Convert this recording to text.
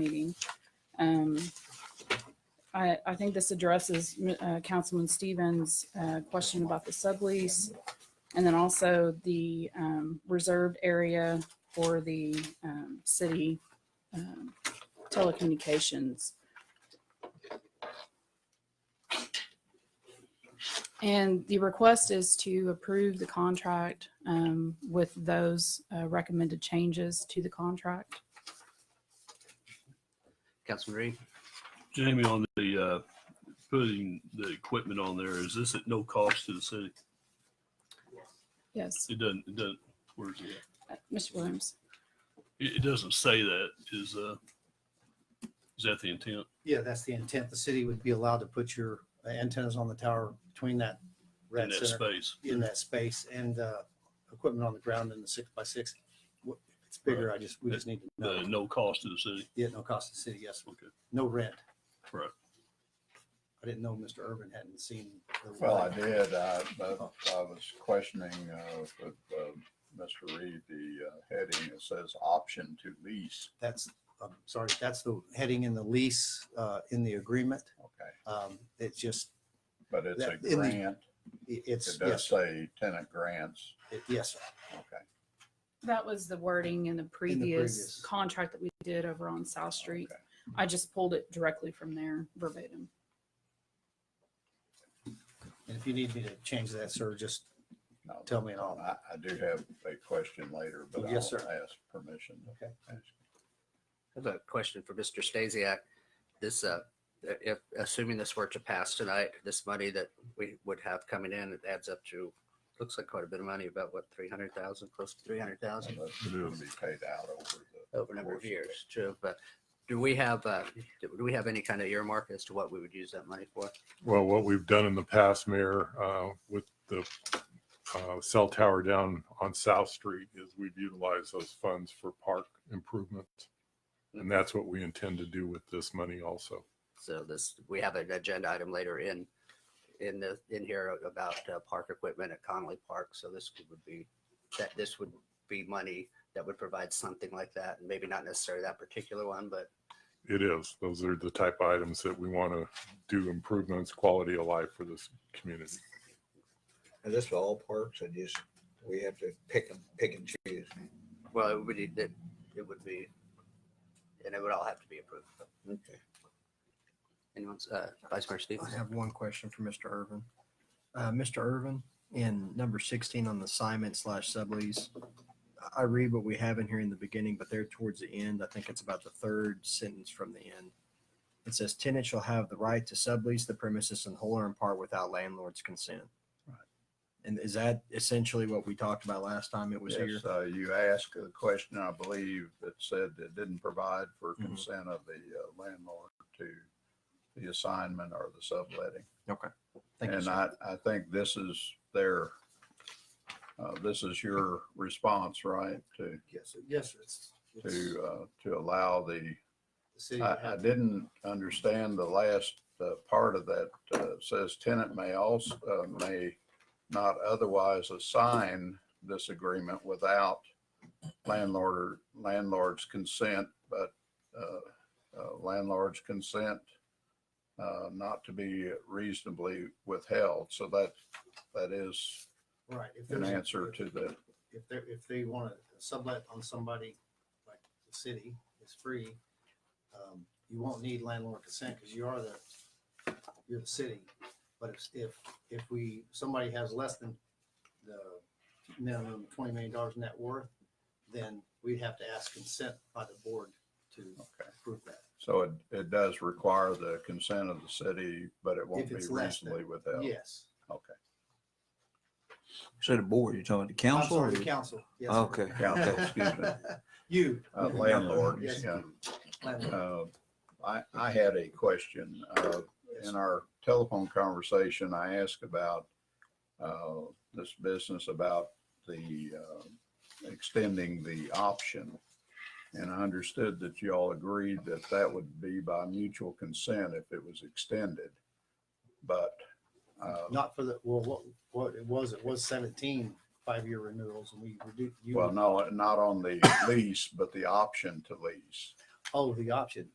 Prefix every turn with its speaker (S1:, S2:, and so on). S1: meeting. Um, I, I think this addresses uh, Councilman Stevens' uh, question about the sublease and then also the um, reserved area for the um, city um, telecommunications. And the request is to approve the contract um, with those uh, recommended changes to the contract.
S2: Councilman Reed?
S3: Jamie, on the, uh, putting the equipment on there, is this at no cost to the city?
S1: Yes,
S3: It doesn't, it doesn't, where's it?
S1: Uh,
S3: at?
S1: Mr. Williams.
S3: It, it doesn't say that, is, uh, is that the intent?
S4: Yeah, that's the intent. The city would be allowed to put your antennas on the tower between that
S3: In
S4: red
S3: that
S4: center,
S3: space?
S4: in that space, and uh, equipment on the ground in the six by six. Wh- If it's bigger, I just, we just need to
S3: The
S4: know.
S3: no cost to the city?
S4: Yeah, no cost to the city, yes,
S3: Okay,
S4: no rent.
S3: right.
S4: I didn't know Mr. Urban hadn't seen. the-
S5: Well, I did, uh, but I was questioning, uh, with, uh, Mr. Reed, the uh, heading, it says option to lease.
S4: That's, I'm sorry, that's the heading in the lease, uh, in the agreement.
S5: Okay,
S4: Um, It's just,
S5: but it's a
S4: That- in the-
S5: grant.
S4: i- it's,
S5: It does
S4: yes, sir.
S5: say tenant grants.
S4: It- yes, sir.
S5: Okay.
S1: That was the wording in the previous
S4: previous.
S1: contract that we did over on South Street.
S5: okay.
S1: I just pulled it directly from there verbatim.
S4: and if you need me to change that, sir, just
S5: No,
S4: tell me and I'll.
S5: I, I do have a question later, but I'll
S4: Yes, sir.
S5: ask permission. to
S4: Okay.
S5: ask.
S2: I have a question for Mr. Stasiak. This, uh, if, assuming this were to pass tonight, this money that we would have coming in, it adds up to, looks like quite a bit of money, about what, three hundred thousand, close to three hundred thousand
S5: And That's going to be paid out over the.
S2: over a number of
S5: course
S2: years, true, but do we have, uh, do we have any kind of earmark as to what we would use that money for?
S6: Well, what we've done in the past, Mayor, uh, with the uh, cell tower down on South Street is we've utilized those funds for park improvements. And that's what we intend to do with this money also.
S2: So this, we have an agenda item later in, in the, in here about uh, park equipment at Connolly Park. So this would be, that this would be money that would provide something like that. And maybe not necessarily that particular one, but
S6: It is, those are the type of items that we want to do improvements, quality of life for this community.
S7: Is this for all parks or just, we have to pick and, pick and choose?
S2: well, it would, it, it would be, and it would all have to be approved.
S7: Okay.
S2: Anyone's, uh, Vice Mayor Stevens?
S8: I have one question for Mr. Irvin. Uh, Mr. Irvin, in number sixteen on the assignment slash sublease, I- I read what we have in here in the beginning, but there towards the end, I think it's about the third sentence from the end. It says tenant shall have the right to sublease the premises in whole or in part without landlord's consent. And is that essentially what we talked about last time it was here?
S5: Yes, uh, you asked a question, I believe, that said it didn't provide for
S4: Mm-hmm.
S8: Mhm.
S5: consent of the uh, landlord to the assignment or the subletting.
S8: Okay. Thank you,
S5: And
S8: sir.
S5: I, I think this is their, uh, this is your response, right? To,
S4: Yes, sir. yes, sir. It's- it's-
S5: to, uh, to allow the,
S4: the city would
S5: I, I
S4: have-
S5: didn't understand the last, uh, part of that, uh, says tenant may also, uh, may not otherwise assign this agreement without landlord, or landlord's consent, but, uh, uh, landlord's consent, uh, not to be reasonably withheld. So that, that is
S4: Right. if
S5: an
S4: there's a-
S5: answer to the,
S4: If they, if they want to sublet on somebody, like the city is free, um, you won't need landlord consent because you are the, you're the city. But if- if, if we, somebody has less than the minimum twenty million dollars net worth, then we'd have to ask consent by the board to
S5: Okay.
S4: approve that.
S5: so it, it does require the consent of the city, but it won't
S4: If
S5: be
S4: it's less than-
S5: reasonably withheld.
S4: Yes.
S5: Okay.
S7: So the board, you're talking the
S4: I'm
S7: council? or
S4: sorry,
S7: the-
S4: council. Yes, sir.
S7: Okay.
S5: Council, excuse me.
S4: You.
S5: Uh, landlord,
S4: Yes,
S5: yeah.
S4: landlord.
S5: Uh, I, I had a question. Uh, in our telephone conversation, I asked about, uh, this business about the, uh, extending the option. And I understood that you all agreed that that would be by mutual consent if it was extended. But, uh,
S4: Not for the, well, what, what it was, it was 17 5 five-year renewals and we reduced.
S5: well, no, not on the lease, but the option to lease.
S4: Oh, the option.